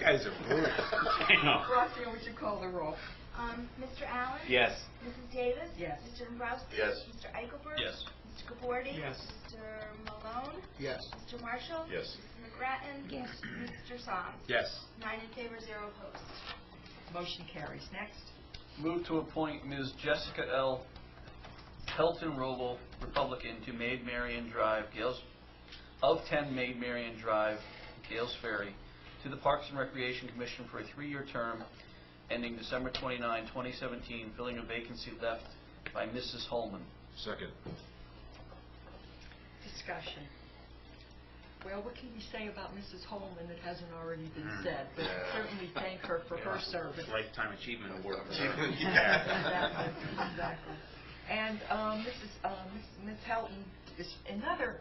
guys are rude. Damn. Roxanne, would you call the roll? Um, Mr. Allen? Yes. Mrs. Davis? Yes. Mr. Dombrowski? Yes. Mr. Eichelberg? Yes. Mr. Gabordi? Yes. Mr. Malone? Yes. Mr. Marshall? Yes. Mrs. McGrattan? Yes. Mr. Soms? Yes. Nine in favor, zero opposed. Motion carries. Next. Move to appoint Ms. Jessica L. Pelton Roble, Republican, to Maid Marian Drive, Gales, of 10 Maid Marian Drive, Gales Ferry, to the Parks and Recreation Commission for a three-year term ending December 29, 2017, filling a vacancy left by Mrs. Holman. Second. Discussion. Well, what can we say about Mrs. Holman that hasn't already been Mm. said? But Yeah. certainly thank her for her Yeah. service. Lifetime Achievement Award. for her. Exactly, exactly. And um, Mrs., uh, Miss- Miss Helton is another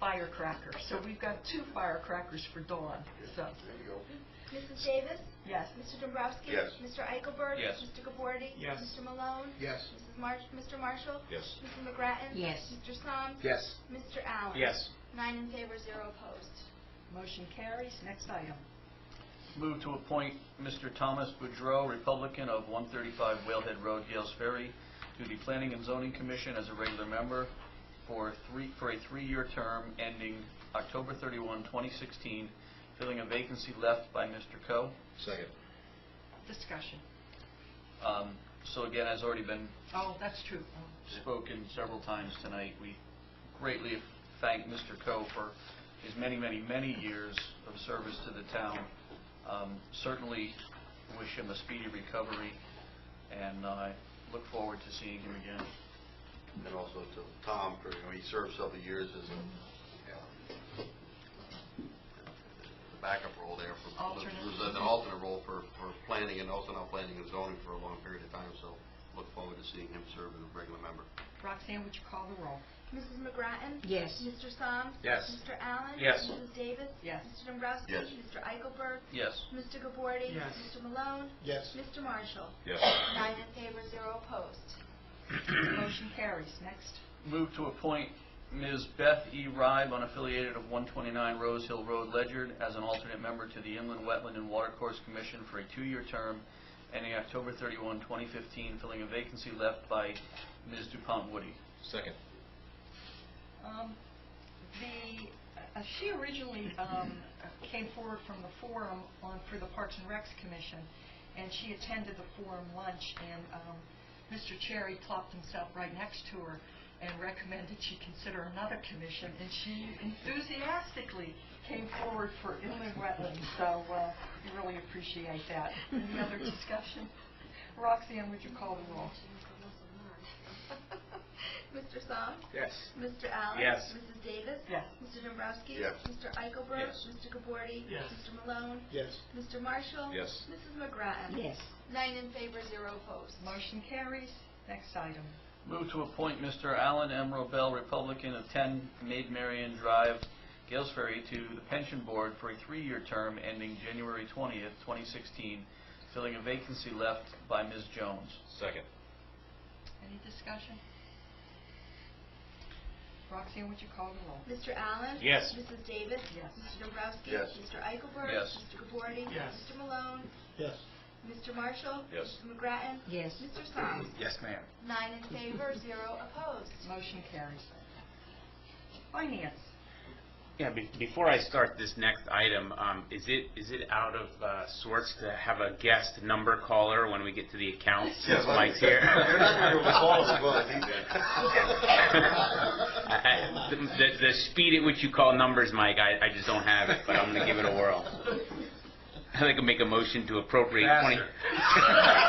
firecracker, so we've got two firecrackers for Dawn, so, There you go. Mrs. Davis? yes. Mr. Dombrowski? Yes. Mr. Eichelberg? Yes. Mr. Gabordi? Yes. Mr. Malone? Yes. Mrs. March, Mr. Marshall? Yes. Mrs. McGrattan? Yes. Mr. Soms? Yes. Mr. Allen? Yes. Nine in favor, zero opposed. Motion carries. Next item. Move to appoint Mr. Thomas Boudreau, Republican of 135 Whalehead Road, Gales Ferry, to the Planning and Zoning Commission as a regular member for three, for a three-year term ending October 31, 2016, filling a vacancy left by Mr. Coe. Second. Discussion. Um, So again, as already been Oh, that's true. Oh. spoken several times tonight, we greatly thank Mr. Coe for his many, many, many years of service to the town. Um, Certainly wish him a speedy recovery, and I look forward to seeing him again. And also to Tom, for, you know, he served several years as a, the backup role there for, Alternate. was an alternate role for, for planning and also now planning and zoning for a long period of time, so look forward to seeing him serve as a regular member. Roxanne, would you call the roll? Mrs. McGrattan? Yes. Mr. Soms? Yes. Mr. Allen? Yes. Mrs. Davis? Yes. Mr. Dombrowski? Yes. Mr. Eichelberg? Yes. Mr. Gabordi? Yes. Mr. Malone? Yes. Mr. Marshall? Yes. Nine in favor, zero opposed. Motion carries. Next. Move to appoint Ms. Beth E. Ribe, unaffiliated of 129 Rose Hill Road, Ledyard, as an alternate member to the Inland Wetland and Watercourse Commission for a two-year term ending October 31, 2015, filling a vacancy left by Ms. DuPont Woody. Second. Um, The, uh, she originally um, came forward from the forum on, for the Parks and Recs Commission, and she attended the forum lunch, and um, Mr. Cherry plopped himself right next to her and recommended she consider another commission, and she enthusiastically came forward for inland wetlands, so uh, we really appreciate that. Any other discussion? Roxanne, would you call the roll? Mr. Soms? Yes. Mr. Allen? Yes. Mrs. Davis? Yes. Mr. Dombrowski? Yes. Mr. Eichelberg? Yes. Mr. Gabordi? Yes. Mr. Malone? Yes. Mr. Marshall? Yes. Mrs. McGrattan? Yes. Nine in favor, zero opposed. Motion carries. Next item. Move to appoint Mr. Alan M. Robel, Republican of 10 Maid Marian Drive, Gales Ferry, to the Pension Board for a three-year term ending January 20th, 2016, filling a vacancy left by Ms. Jones. Second. Any discussion? Roxanne, would you call the roll? Mr. Allen? Yes. Mrs. Davis? Yes. Mr. Dombrowski? Yes. Mr. Eichelberg? Yes. Mr. Gabordi? Yes. Mr. Malone? Yes. Mr. Marshall? Yes. Mrs. McGrattan? Yes. Mr. Soms? Yes, ma'am. Nine in favor, zero opposed. Motion carries. Finance. Yeah, be- before I start this next item, um, is it, is it out of uh, sorts to have a guest number caller when we get to the accounts since Mike's here? You're not gonna recall us, but he's I- I- The the- the speed at which you call numbers, Mike, I I just don't have it, but I'm going to give it a whirl. I think I'll make a motion to appropriate 20...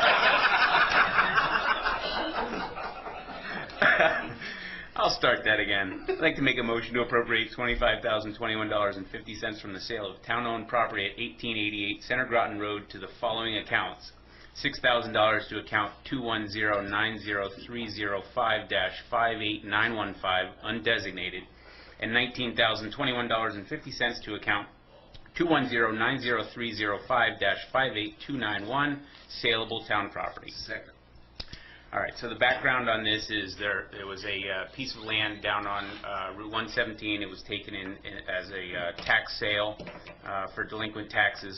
I'll start that again. I'd like to make a motion to appropriate $25,021.50 from the sale of town-owned property at 1888 Center Groton Road to the following accounts. $6,000 to account 210-90305-58915 undesignated, and $19,021.50 to account 210-90305-58291 saleable town property. Second. All right, so the background on this is there, there was a uh, piece of land down on uh, Route 117. It was taken in in- as a uh, tax sale uh, for delinquent taxes.